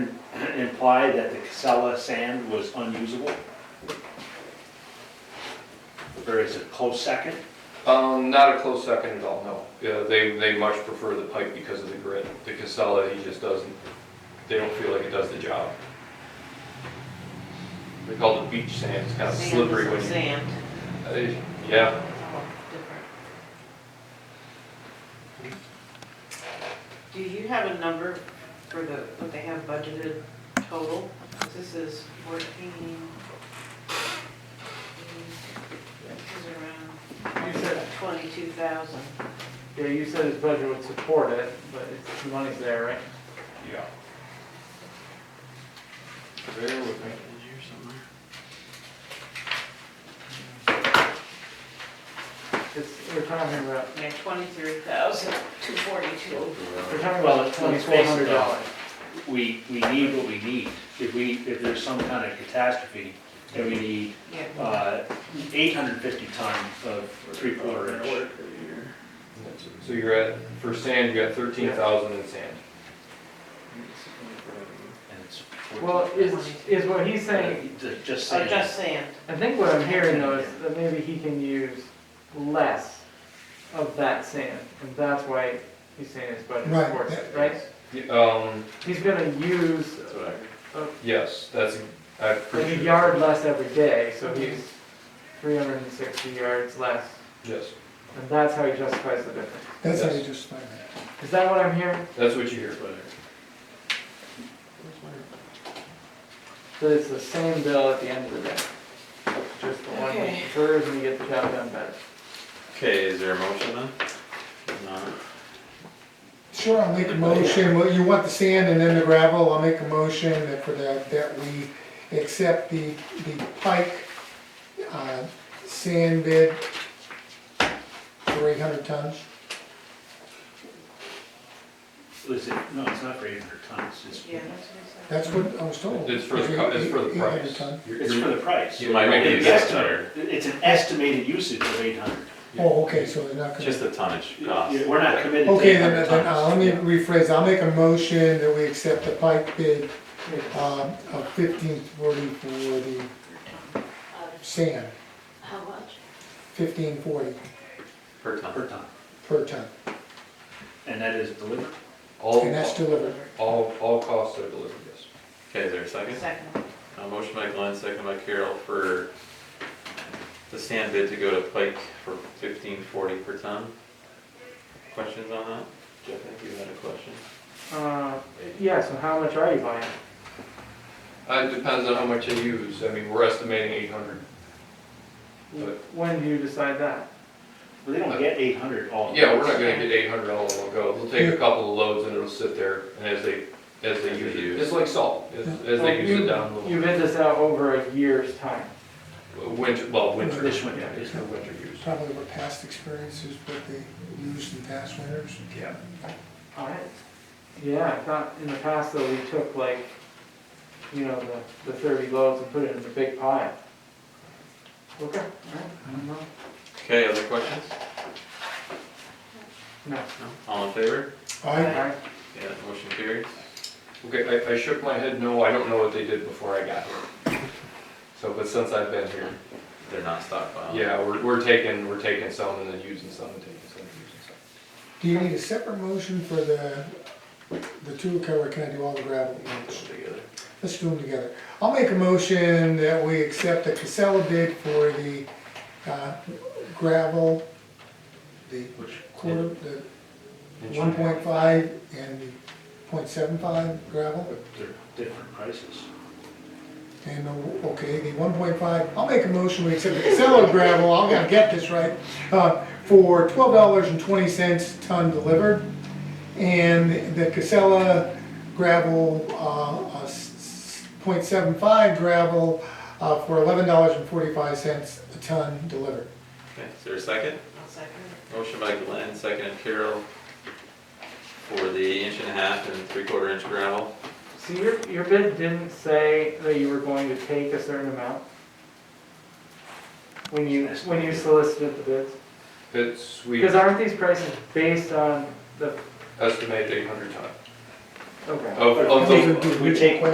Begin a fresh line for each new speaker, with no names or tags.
imply that the Casella sand was unusable? Or is it close second?
Um, not a close second at all, no. Yeah, they, they much prefer the pipe because of the grit. The Casella, he just doesn't, they don't feel like it does the job. They call it beach sand, it's kind of
Sand
slippery when
is
you.
Sand.
Uh, Yeah,
Different. Do you have a number for the, what they have budgeted total? 'Cause This is fourteen. This is around twenty-two thousand.
Yeah, you said his budget would support it, but it's- the money's there, right?
yeah. Bear with me.
It's, we're talking about,
Yeah, twenty-three thousand, two forty-two.
we're talking
Well,
about
let's- let's
twenty-four
face
hundred
it,
dollars.
We, we need what we need. If we, if there's some kind of catastrophe, then we need,
Yeah.
uh, eight hundred fifty ton of three quarter inch.
So you're at, for sand, you got thirteen thousand in sand.
and it's fourteen.
Well, is, is what he's saying, Oh,
Uh, Just
Or
saying,
Oh, just sand.
I think what I'm hearing though is that maybe he can use less of that sand, and that's why he's saying his budget
Right,
supports it,
that-
right?
Y- Um,
He's gonna use
yes, that's, I
like
appreciate.
a yard less every day, so he's three hundred and sixty yards less,
Yes,
and that's how he justifies the difference.
That's how you
Yes.
justify that.
Is that what I'm hearing?
that's what you hear.
That it's the same bill at the end of the day? Just the one
Okay.
we serve and you get the job done better.
Okay, is there a motion then?
Sure, I'll
Oh,
make a motion, well, you want the sand and then the gravel, I'll make a motion that for that, that we accept the, the Pike, uh, sand bid for eight hundred tons.
is it, no, it's not for eight hundred tons, it's,
Yeah, that's what I said.
That's what I was told.
It's for, the co- it's for the price.
800 ton.
You're-
it's
you're-
for the price.
You might make it
It's
easier.
estimate- It's an estimated usage of eight hundred.
Oh, okay, so they're not gonna.
Just the tonnage cost.
We're not committed to
Okay,
eight
then,
hundred
then, uh, let
tons.
me rephrase, I'll make a motion that we accept the Pike bid, um, of fifteen forty for the sand,
How much?
fifteen forty
Per
Yeah,
ton.
Per ton,
per ton,
and that is delivered.
and that's
All,
delivered.
all, all costs are delivered, yes.
Okay, is there a second?
Second.
A motion by Glenn, second by Carol for the sand bid to go to Pike for fifteen forty per ton. Questions on that? Jeff, I think you had a question.
Uh, yeah, so how much are you buying?
Uh, It depends on how much they use. I mean, we're estimating eight hundred. But-
When do you decide that?
But they don't get eight hundred all.
Yeah, we're not gonna get eight hundred all in one go. We'll take a couple of loads and it'll sit there and as they, as they
As they
use it,
use.
it's like salt. As as
Well,
they use
you-
it down, a little.
You bid this out over a year's time.
winter, well, winter.
This winter.
Yeah, It's for winter use.
probably what past experiences, what they used in past winters.
Yeah.
All right. Yeah, I thought in the past though, we took like, you know, the, the thirty loads and put it in the big pile. Mm-hmm. Okay, all right, I don't know.
Okay, other questions?
No.
No? All in favor?
I,
All right.
Yeah, motion carries.
Okay, I, I shook my head, no, I don't know what they did before I got here. So, but since I've been here,
They're not stockpiling.
yeah, we're, we're taking, we're taking some and then using some and taking some and using some.
do you need a separate motion for the, the two, or can I do all the gravel at once?
Together.
Let's do them together. I'll make a motion that we accept the Casella bid for the uh, gravel, the quarter, the
Inch
one
and a half.
point five and the point seven five gravel.
But They're different prices.
And, the- okay, the one point five, I'll make a motion, we accept the Casella gravel, I'm gonna get this right, uh, for twelve dollars and twenty cents ton delivered. And the Casella gravel, uh, point seven five gravel, uh, for eleven dollars and forty-five cents a ton delivered.
Okay, is there a second?
I'll second.
Motion by Glenn, second Carol for the inch and a half and three quarter inch gravel.
So your, your bid didn't say that you were going to take a certain amount? When you, when you solicited the bids?
It's, we
Because aren't these prices based on the,
estimate eight hundred ton.
okay.
Of, of
Those are
the,
good.
We take